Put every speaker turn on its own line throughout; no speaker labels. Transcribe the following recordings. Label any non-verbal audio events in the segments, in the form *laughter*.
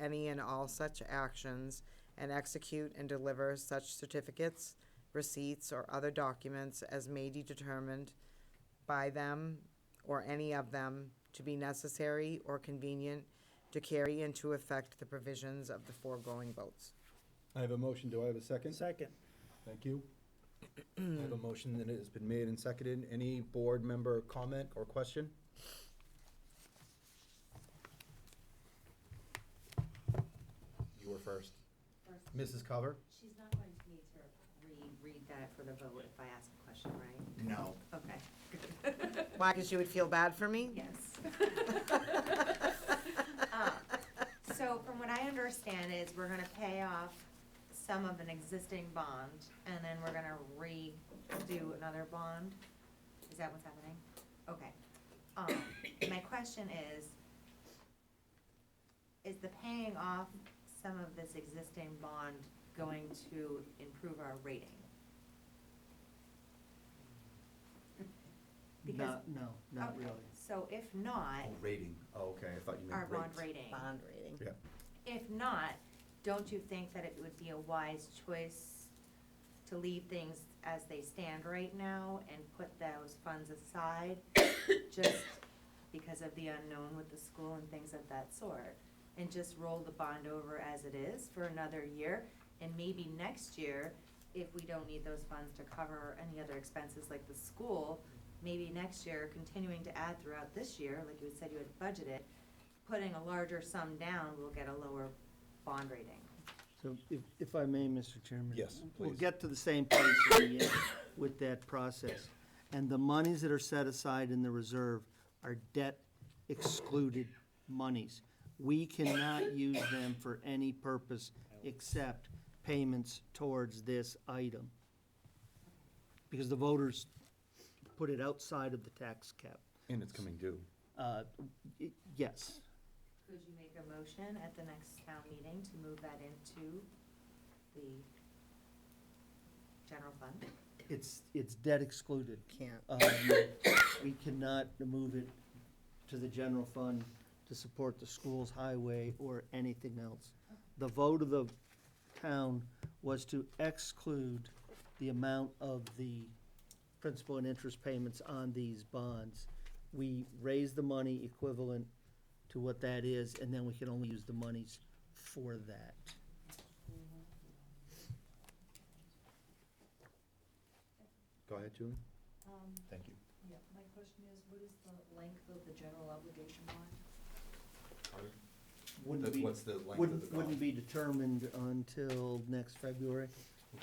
any and all such actions and execute and deliver such certificates, receipts, or other documents as may be determined by them or any of them to be necessary or convenient to carry into effect the provisions of the foregoing votes.
I have a motion, do I have a second?
Second.
Thank you. I have a motion that has been made and seconded. Any board member comment or question? You were first.
First,
Mrs. Cover?
she's not going to need to reread that for the vote if I ask a question, right?
No.
Okay.
Why, because you would feel bad for me?
*laughs*
Yes. Um, So from what I understand is we're gonna pay off some of an existing bond and then we're gonna redo another bond? Is that what's happening? Okay. Um, my question is, is the paying off some of this existing bond going to improve our rating? Because,
Not, no, not
Okay.
really.
so if not,
Oh, rating. Oh, okay, I thought you meant
our bond
rates.
rating.
bond rating.
If not, don't you think that it would be a wise choice to leave things as they stand right now and put those funds aside? Just because of the unknown with the school and things of that sort? And just roll the bond over as it is for another year? And maybe next year, if we don't need those funds to cover any other expenses like the school, maybe next year, continuing to add throughout this year, like you said you had budgeted, putting a larger sum down, we'll get a lower bond rating.
So if, if I may, Mr. Chairman?
Yes,
We'll
please.
get to the same place in
*coughs*
the end with that process. And the monies that are set aside in the reserve are debt excluded monies. We cannot use them for any purpose except payments towards this item. Because the voters put it outside of the tax cap.
And it's coming due.
Uh, y- Yes.
Could you make a motion at the next town meeting to move that into the general fund?
It's, it's debt excluded.
Can't.
Um, We cannot move it to the general fund to support the schools, highway, or anything else. The vote of the town was to exclude the amount of the principal and interest payments on these bonds. We raise the money equivalent to what that is, and then we can only use the monies for that.
Go ahead, Julie.
Um,
Thank you.
yeah, my question is, what is the length of the general obligation bond?
Wouldn't
That's-
be-
What's the length of the
Wouldn't,
bond?
wouldn't be determined until next February,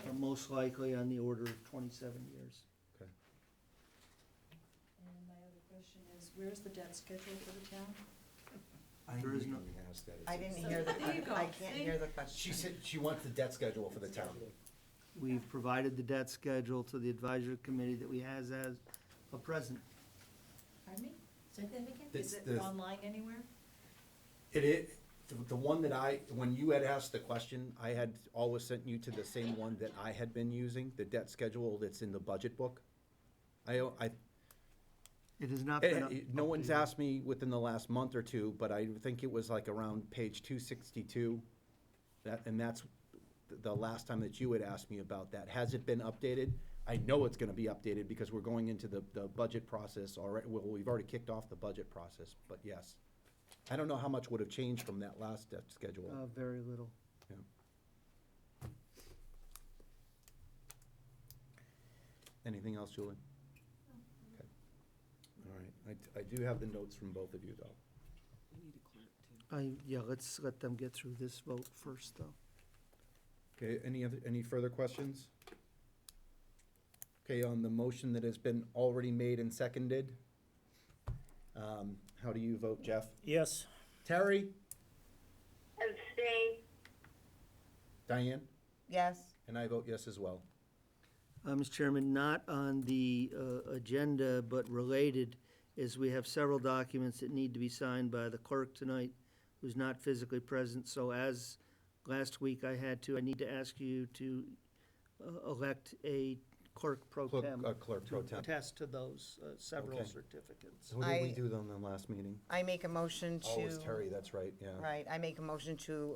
uh, most likely on the order of twenty-seven years.
And my other question is, where's the debt schedule for the town?
I
There
knew
is
you
no-
were gonna ask that. It's-
I didn't
So
hear the,
there you
que-
go.
I can't
See?
hear the question.
She said she wants the debt schedule for the town.
We've provided the debt schedule to the advisory committee that we has as a present.
Pardon me? Say that again?
It's
Is it
the-
online anywhere?
It is, the, the one that I, when you had asked the question, I had always sent you to the same one that I had been using, the debt schedule that's in the budget book. I, I,
It has not been.
it-
up-
it- Eh, no one's
updated.
asked me within the last month or two, but I think it was like around page two sixty-two. That, and that's the- the last time that you had asked me about that. Has it been updated? I know it's gonna be updated because we're going into the, the budget process already. Well, we've already kicked off the budget process, but yes. I don't know how much would have changed from that last debt schedule.
Uh, very little.
Anything else, Julie? Okay. All right, I, I do have the notes from both of you, though.
I, yeah, let's let them get through this vote first, though.
Okay, any other, any further questions? Okay, on the motion that has been already made and seconded, um, how do you vote, Jeff?
Yes.
Terry? Abstain. Diane?
Yes,
And I vote yes as well.
Uh, Mr. Chairman, not on the uh, agenda, but related, is we have several documents that need to be signed by the clerk tonight, who's not physically present. So as last week I had to, I need to ask you to uh, elect a clerk pro
Clerk-
tem.
uh, clerk pro
To
tem.
attest to those uh, several
Okay.
certificates.
So what did we
I-
do then the last meeting?
I make a motion to.
Oh, it was Terry, that's right, yeah.
Right, I make a motion to